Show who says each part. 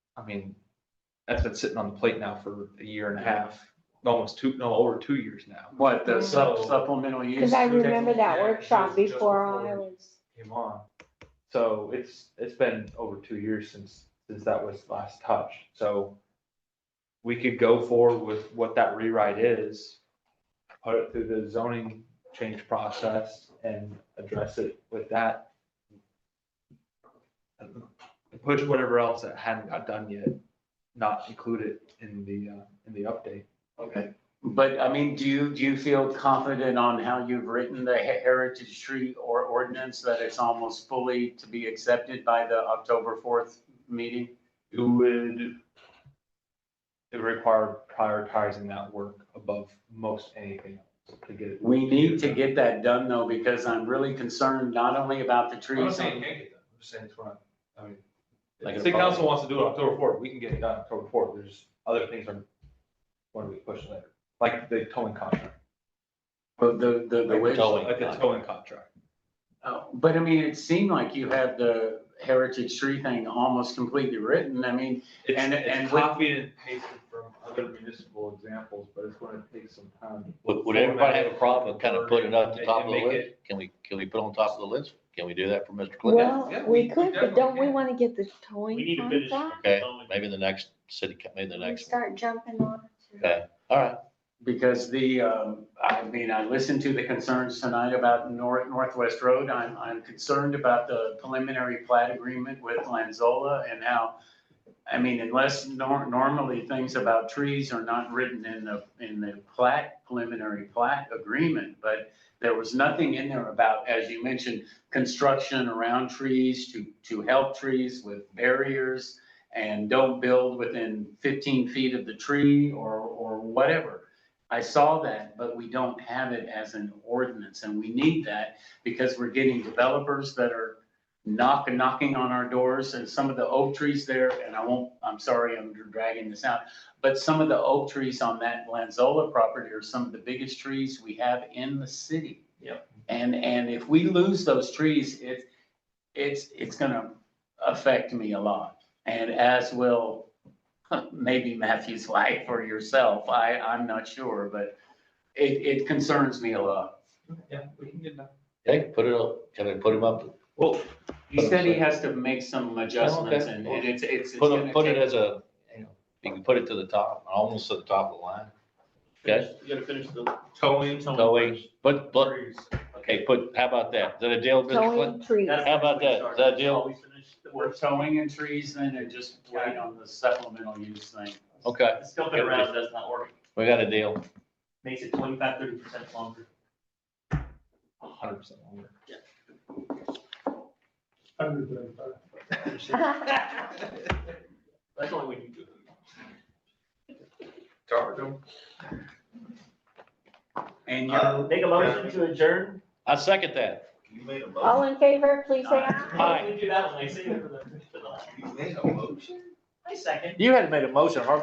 Speaker 1: I mean, that's been sitting on the plate now for a year and a half, almost two, no, over two years now.
Speaker 2: What, the sup-
Speaker 1: So-
Speaker 2: supplemental use?
Speaker 3: Cause I
Speaker 1: re-
Speaker 3: remember that
Speaker 1: Yeah,
Speaker 3: workshop
Speaker 1: just- just
Speaker 3: before
Speaker 1: before.
Speaker 3: I was,
Speaker 1: Came on. So it's, it's been over two years since, since that was last touched, so we could go forward with what that rewrite is, put it through the zoning change process and address it with that. And Push whatever else that hadn't got done yet, not include it in the, uh, in the update.
Speaker 2: Okay, but I mean, do you, do you feel confident on how you've written the he- heritage tree or ordinance that it's almost fully to be accepted by the October fourth meeting?
Speaker 1: It would, it require prioritizing that work above most anything else to get it.
Speaker 2: We need to get that done though, because I'm really concerned not only about the
Speaker 1: I'm not
Speaker 2: trees.
Speaker 1: saying you can't get done, I'm just saying it's not, I mean,
Speaker 2: Like
Speaker 1: if
Speaker 2: a
Speaker 1: city
Speaker 2: problem.
Speaker 1: council wants to do it October fourth, we can get it done October fourth, there's other things are going to be pushed later, like the towing contract.
Speaker 2: But the, the, the wish.
Speaker 4: Totally. Towing
Speaker 1: Like the
Speaker 4: contract.
Speaker 1: towing contract.
Speaker 2: Oh, But I mean, it seemed like you had the heritage tree thing almost completely written. I mean,
Speaker 1: It's-
Speaker 2: And-
Speaker 1: it's
Speaker 2: and with-
Speaker 1: Copied and pasted from other municipal examples, but it's gonna take some time.
Speaker 4: Would, would everybody have a problem with kind of putting it up the top of the list? Can we, can we put on top of the list? Can we do that for Mr. Clinton?
Speaker 3: well,
Speaker 1: yeah, we-
Speaker 3: we
Speaker 1: we
Speaker 3: could, but
Speaker 1: definitely
Speaker 3: don't we
Speaker 1: can.
Speaker 3: wanna get the
Speaker 5: We
Speaker 3: towing
Speaker 5: need to finish.
Speaker 3: contract?
Speaker 4: Okay, maybe the next city, co- maybe the
Speaker 3: We
Speaker 4: next one.
Speaker 3: start jumping on it.
Speaker 4: Okay, all right.
Speaker 2: because the, um, I mean, I listened to the concerns tonight about North, Northwest Road. I'm, I'm concerned about the preliminary plat agreement with Lanzola and how, I mean, unless nor- normally things about trees are not written in the, in the plat, preliminary plat agreement, but there was nothing in there about, as you mentioned, construction around trees to, to help trees with barriers and don't build within fifteen feet of the tree or, or whatever. I saw that, but we don't have it as an ordinance, and we need that because we're getting developers that are knock, knocking on our doors, and some of the oak trees there, and I won't, I'm sorry, I'm dragging this out, but some of the oak trees on that Lanzola property are some of the biggest trees we have in the city.
Speaker 5: Yep.
Speaker 2: And, and if we lose those trees, it, it's, it's gonna affect me a lot, and as will maybe Matthew's wife or yourself, I, I'm not sure, but it, it concerns me a lot.
Speaker 1: Yeah, we can get that.
Speaker 4: Okay, put it up, can I put him up?
Speaker 2: Well, he said he has to make some adjustments and and it's, it's. it's
Speaker 4: Put
Speaker 2: gonna
Speaker 4: it, put it
Speaker 2: take-
Speaker 4: as a, you know, you can put it to the top, almost to the top of the line. Okay,
Speaker 5: You gotta finish the.
Speaker 1: Towing.
Speaker 4: towing, but, but,
Speaker 1: trees.
Speaker 4: okay, put, how about that? Is that a deal, Mr. Clinton?
Speaker 3: Towing trees.
Speaker 4: How about that? Is that a deal?
Speaker 5: We finish the
Speaker 2: We're
Speaker 5: work.
Speaker 2: towing and trees then and just wait on the supplemental use thing.
Speaker 4: Okay,
Speaker 5: It's Jumping around, that's not working.
Speaker 4: we got a deal.
Speaker 5: Makes it twenty-five, thirty percent longer.
Speaker 1: Hundred percent longer.
Speaker 5: That's only when you do it.
Speaker 1: Charge them.
Speaker 2: And you're,
Speaker 5: Uh, Make a motion to adjourn.
Speaker 4: I second that.
Speaker 6: You made a
Speaker 3: All
Speaker 6: motion.
Speaker 3: in favor, please say aye.
Speaker 4: Aye.
Speaker 5: We do that one, I say it for the, for the.
Speaker 6: You made a motion?
Speaker 5: I second.
Speaker 4: You hadn't made a motion, Harvey.